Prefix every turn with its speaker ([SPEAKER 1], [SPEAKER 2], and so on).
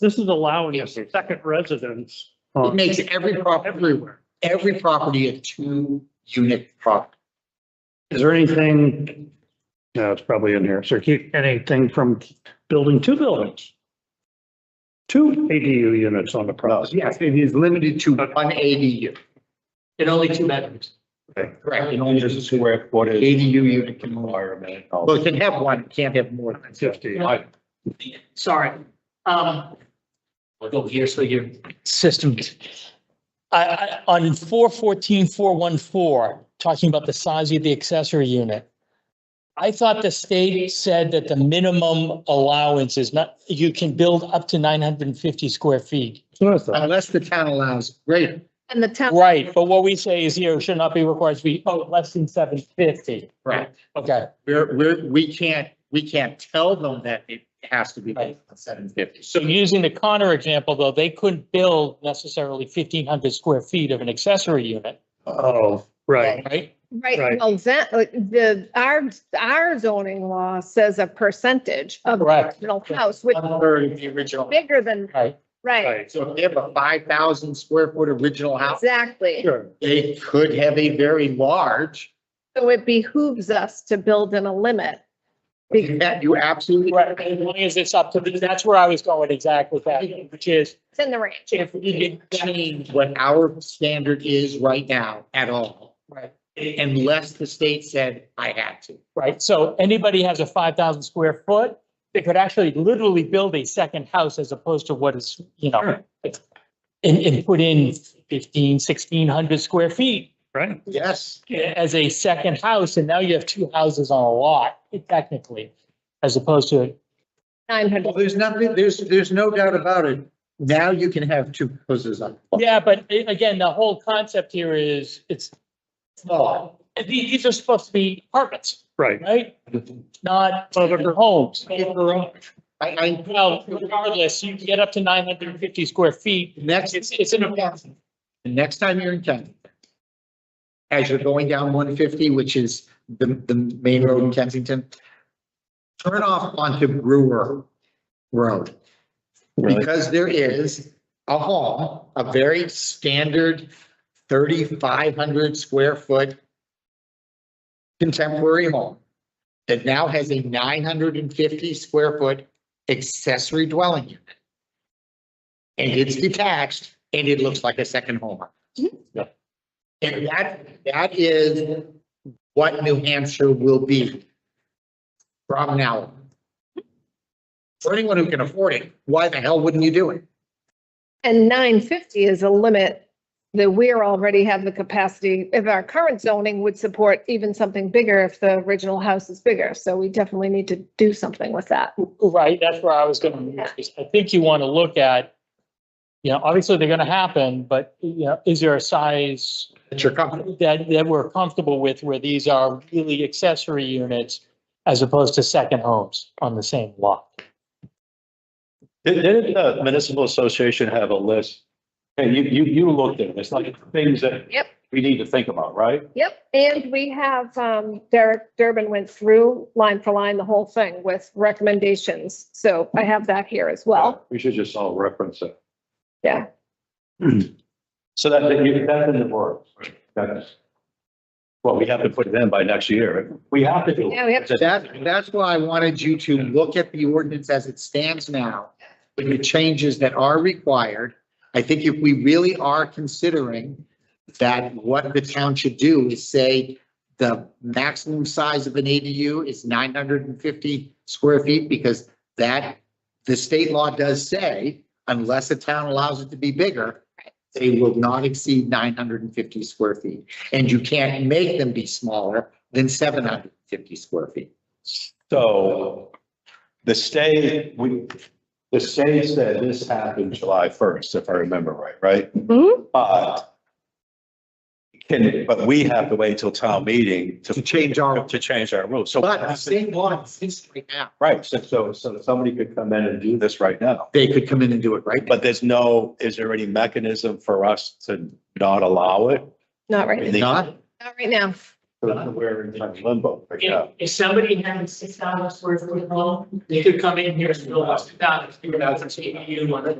[SPEAKER 1] This is allowing a second residence.
[SPEAKER 2] It makes every property,
[SPEAKER 1] Everywhere.
[SPEAKER 2] every property a two unit property.
[SPEAKER 1] Is there anything? No, it's probably in here. So keep anything from building two buildings. Two ADU units on the property.
[SPEAKER 2] Yes, it is limited to one ADU. In only two bedrooms. Correct, in only two
[SPEAKER 3] square footage.
[SPEAKER 2] ADU unit can more.
[SPEAKER 3] Environment.
[SPEAKER 2] Well, it can have one, it can't have more than fifty.
[SPEAKER 1] Fifty.
[SPEAKER 4] sorry. Um, I'll go here so your system. I, I, on four fourteen, four one four, talking about the size of the accessory unit. I thought the state said that the minimum allowance is not, you can build up to nine hundred and fifty square feet.
[SPEAKER 2] Unless the town allows greater.
[SPEAKER 5] And the town.
[SPEAKER 4] Right, but what we say is here should not be required to be, oh, less than seven fifty.
[SPEAKER 2] Right.
[SPEAKER 4] Okay,
[SPEAKER 2] We're, we're, we can't, we can't tell them that it has to be
[SPEAKER 4] Right.
[SPEAKER 2] seven fifty.
[SPEAKER 4] so using the Connor example, though, they couldn't build necessarily fifteen hundred square feet of an accessory unit,
[SPEAKER 1] Oh, right.
[SPEAKER 4] right?
[SPEAKER 1] Right.
[SPEAKER 5] Right, well, that, like, the, our, our zoning law says a percentage of the
[SPEAKER 4] Correct.
[SPEAKER 5] original house, which
[SPEAKER 2] One
[SPEAKER 5] is
[SPEAKER 2] third of the original.
[SPEAKER 5] bigger than,
[SPEAKER 4] Right.
[SPEAKER 5] right,
[SPEAKER 1] Right.
[SPEAKER 2] So if they have a five thousand square foot original house,
[SPEAKER 5] exactly.
[SPEAKER 1] Sure.
[SPEAKER 2] they could have a very large.
[SPEAKER 5] So it behooves us to build in a limit. Because
[SPEAKER 2] That you absolutely.
[SPEAKER 4] Right, as long as it's up to, the- that's where I was going exactly with that, which is
[SPEAKER 5] It's in the range.
[SPEAKER 4] if we did
[SPEAKER 2] change what our standard is right now at all,
[SPEAKER 4] Right,
[SPEAKER 2] unless the state said I had to.
[SPEAKER 4] right. So anybody has a five thousand square foot, they could actually literally build a second house as opposed to what is, you know, it's- and, and put in fifteen, sixteen hundred square feet
[SPEAKER 1] Right.
[SPEAKER 2] Yes.
[SPEAKER 4] as a second house, and now you have two houses on a lot technically, as opposed to,
[SPEAKER 2] Well,
[SPEAKER 5] Nine hundred,
[SPEAKER 2] there's nothing, there's, there's no doubt about it. Now you can have two houses on.
[SPEAKER 4] yeah, but a- again, the whole concept here is, it's,
[SPEAKER 2] Small.
[SPEAKER 4] these, these are supposed to be apartments,
[SPEAKER 1] Right.
[SPEAKER 4] right? Not
[SPEAKER 1] Well, they're-
[SPEAKER 4] homes.
[SPEAKER 2] I, I,
[SPEAKER 4] Well, regardless, you can get up to nine hundred and fifty square feet.
[SPEAKER 2] next,
[SPEAKER 4] It's, it's an apartment.
[SPEAKER 2] the next time you're in Kent, as you're going down one fifty, which is the, the main road in Kensington, turn off onto Brewer Road. Because there is a home, a very standard thirty-five hundred square foot contemporary home that now has a nine hundred and fifty square foot accessory dwelling unit. And it's detached and it looks like a second home. And that, that is what New Hampshire will be from now. on. For anyone who can afford it, why the hell wouldn't you do it?
[SPEAKER 5] and nine fifty is a limit that we're already have the capacity, if our current zoning would support even something bigger if the original house is bigger. So we definitely need to do something with that.
[SPEAKER 4] Right, that's where I was gonna, move, is I think you wanna look at, you know, obviously they're gonna happen, but, you know, is there a size
[SPEAKER 2] It's your company.
[SPEAKER 4] that, that we're comfortable with where these are really accessory units as opposed to second homes on the same lot?
[SPEAKER 3] Did- Didn't the municipal association have a list? And you, you, you looked at it. It's like things that
[SPEAKER 5] Yep.
[SPEAKER 3] we need to think about, right?
[SPEAKER 5] Yep, and we have, um, Derek Durbin went through line for line, the whole thing with recommendations. So I have that here as well.
[SPEAKER 3] We should just all reference it.
[SPEAKER 5] Yeah.
[SPEAKER 3] So that, that you- that's in the works. That's, well, we have to put it in by next year. We have to do. it.
[SPEAKER 5] Yeah, we have
[SPEAKER 2] That, that's why I wanted you to look at the ordinance as it stands now, with the changes that are required. I think if we really are considering that what the town should do is say the maximum size of an ADU is nine hundred and fifty square feet, because that, the state law does say, unless a town allows it to be bigger, they will not exceed nine hundred and fifty square feet. And you can't make them be smaller than seven hundred and fifty square feet.
[SPEAKER 3] So the state, we, the state said this happened July first, if I remember right, right?
[SPEAKER 5] Mhm.
[SPEAKER 3] But can, but we have to wait till town meeting to.
[SPEAKER 2] To change our-
[SPEAKER 3] To change our rules. So,
[SPEAKER 2] But the same law exists right now.
[SPEAKER 3] right, so, so, so somebody could come in and do this right now.
[SPEAKER 2] They could come in and do it right now.
[SPEAKER 3] But there's no, is there any mechanism for us to not allow it?
[SPEAKER 5] Not right,
[SPEAKER 3] They-
[SPEAKER 2] Not,
[SPEAKER 5] not right now.
[SPEAKER 3] So We're in kind of limbo right
[SPEAKER 6] If,
[SPEAKER 3] now.
[SPEAKER 6] if somebody had a six thousand square foot home, they could come in here and build a two thousand, three thousand, eight, you want